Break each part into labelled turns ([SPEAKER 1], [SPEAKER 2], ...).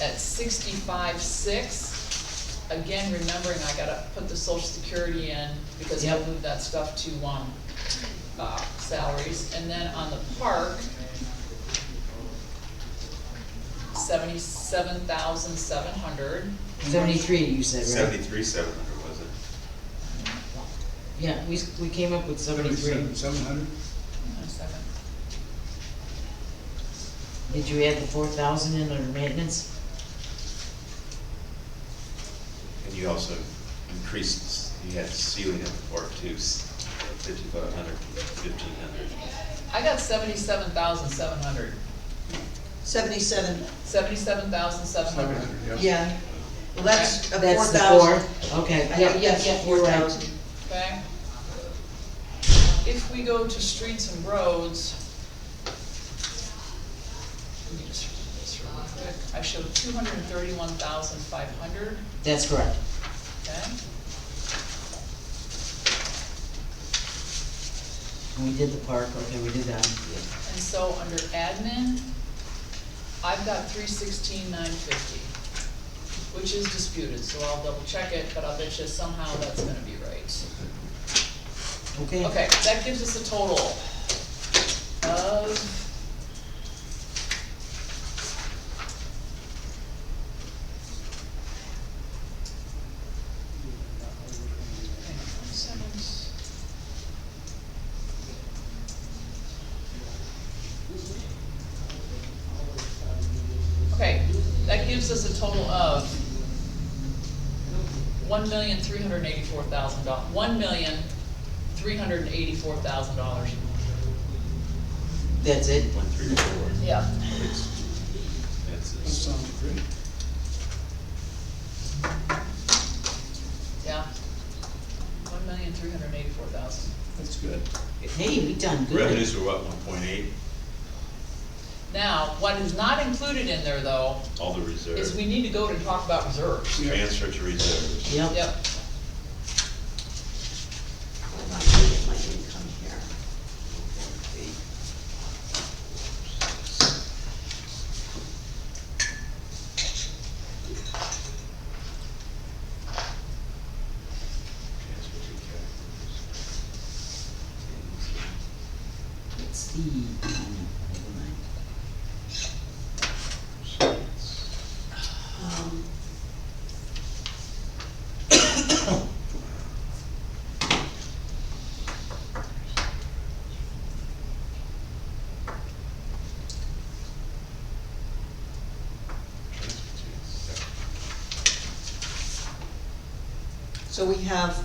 [SPEAKER 1] at sixty-five, six. Again, remembering I gotta put the social security in, because I
[SPEAKER 2] Yep.
[SPEAKER 1] moved that stuff to, um, uh, salaries, and then on the park, seventy-seven thousand seven hundred,
[SPEAKER 2] Seventy-three, you said, right?
[SPEAKER 3] Seventy-three, seven hundred, was it?
[SPEAKER 2] Yeah, we, we came up with seventy-three.
[SPEAKER 4] Seventy-seven, seven hundred?
[SPEAKER 1] One second.
[SPEAKER 2] Did you add the four thousand in under maintenance?
[SPEAKER 3] And you also increased, you had ceiling at the park too, fifty-five hundred, fifteen hundred.
[SPEAKER 1] I got seventy-seven thousand seven hundred.
[SPEAKER 5] Seventy-seven,
[SPEAKER 1] Seventy-seven thousand seven
[SPEAKER 4] Seven
[SPEAKER 1] hundred.
[SPEAKER 4] hundred, yeah.
[SPEAKER 5] yeah. Well, that's a four
[SPEAKER 2] That's the
[SPEAKER 5] thousand.
[SPEAKER 2] four, okay.
[SPEAKER 5] I
[SPEAKER 2] yep,
[SPEAKER 5] have, yes,
[SPEAKER 2] yep,
[SPEAKER 5] four
[SPEAKER 2] you're right.
[SPEAKER 5] thousand.
[SPEAKER 1] okay? If we go to streets and roads. Let me just do this real quick. I showed two hundred and thirty-one thousand five hundred,
[SPEAKER 2] That's correct.
[SPEAKER 1] okay?
[SPEAKER 2] And We did the park, okay, we did that.
[SPEAKER 1] And so under admin, I've got three sixteen nine fifty, which is disputed, so I'll double check it, but I'll bet you somehow that's gonna be right.
[SPEAKER 2] Okay.
[SPEAKER 1] Okay, that gives us a total of. Hang on one second. Okay, that gives us a total of one million, three hundred and eighty-four thousand dollars. one million, three hundred and eighty-four thousand dollars.
[SPEAKER 2] That's it?
[SPEAKER 3] One, three, four.
[SPEAKER 1] Yeah.
[SPEAKER 3] It's- That's
[SPEAKER 4] That
[SPEAKER 3] it.
[SPEAKER 4] sounds great.
[SPEAKER 1] Yeah. One million, three hundred and eighty-four thousand.
[SPEAKER 4] That's good.
[SPEAKER 2] Hey, we done good.
[SPEAKER 3] Revenues were what, one point eight,
[SPEAKER 1] Now, what is not included in there though,
[SPEAKER 3] all the
[SPEAKER 1] is
[SPEAKER 3] reserves,
[SPEAKER 1] we need to go to talk about reserves.
[SPEAKER 4] Yeah.
[SPEAKER 3] transfer to reserves.
[SPEAKER 2] Yep,
[SPEAKER 1] Yep,
[SPEAKER 5] Hold on, let me get my income here.
[SPEAKER 3] Transfer to capital.
[SPEAKER 2] let's see. Oh, no, never mind.
[SPEAKER 5] Um,
[SPEAKER 3] Transfer to separate.
[SPEAKER 5] So we have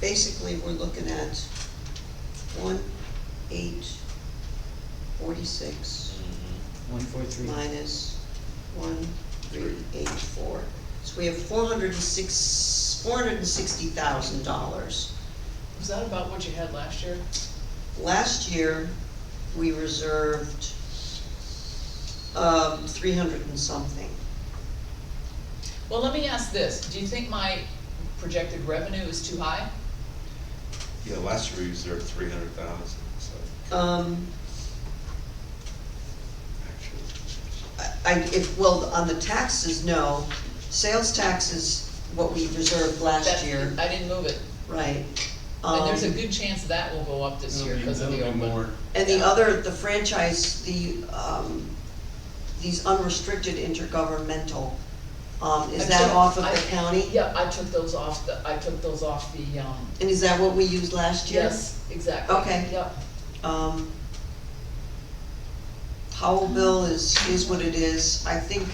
[SPEAKER 5] basically, we're looking at one, eight, forty-six.
[SPEAKER 2] One, four, three.
[SPEAKER 5] minus one, three, eight, four. So we have four hundred and six, four hundred and sixty thousand dollars.
[SPEAKER 1] was that about what you had last year?
[SPEAKER 5] Last year, we reserved, um, three hundred and something.
[SPEAKER 1] Well, let me ask this, do you think my projected revenue is too high?
[SPEAKER 3] Yeah, last year we reserved three hundred thousand, so
[SPEAKER 5] Um,
[SPEAKER 3] actually.
[SPEAKER 5] I- I, if, well, on the taxes, no. Sales tax is what we reserved last
[SPEAKER 1] That-
[SPEAKER 5] year,
[SPEAKER 1] I didn't move it,
[SPEAKER 5] right.
[SPEAKER 1] and there's a
[SPEAKER 5] Um,
[SPEAKER 1] good chance that will go up this year
[SPEAKER 4] That'll be-
[SPEAKER 1] because of the
[SPEAKER 4] that'll be
[SPEAKER 1] open.
[SPEAKER 4] more.
[SPEAKER 5] And the other, the franchise, the, um, these unrestricted intergovernmental, um, is that
[SPEAKER 1] Actually,
[SPEAKER 5] off of
[SPEAKER 1] I-
[SPEAKER 5] the county?
[SPEAKER 1] Yeah, I took those off the, I took those off the, um,
[SPEAKER 5] And is that what we used last year?
[SPEAKER 1] yes, exactly.
[SPEAKER 5] Okay.
[SPEAKER 1] Yep,
[SPEAKER 5] Um, Howellville is, is what it is, I think,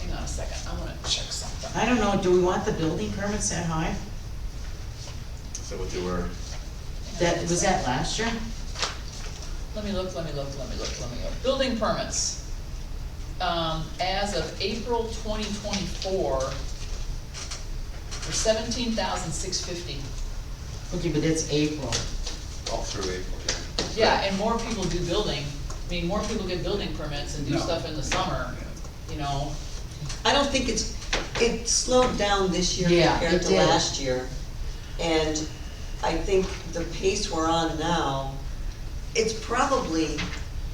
[SPEAKER 1] hang on a second, I wanna check something.
[SPEAKER 2] I don't know, do we want the building permits that high?
[SPEAKER 3] So what they were,
[SPEAKER 2] That, was that last year?
[SPEAKER 1] Let me look, let me look, let me look, let me look. Building permits. Um, as of April twenty twenty-four, for seventeen thousand six fifty.
[SPEAKER 2] Okay, but that's April.
[SPEAKER 3] all through April, yeah.
[SPEAKER 1] Yeah, and more people do building, I mean, more people get building permits and do
[SPEAKER 4] No.
[SPEAKER 1] stuff in the summer, you know?
[SPEAKER 5] I don't think it's, it slowed down this year
[SPEAKER 2] Yeah,
[SPEAKER 5] compared
[SPEAKER 2] it
[SPEAKER 5] to
[SPEAKER 2] did.
[SPEAKER 5] last year. And I think the pace we're on now, it's probably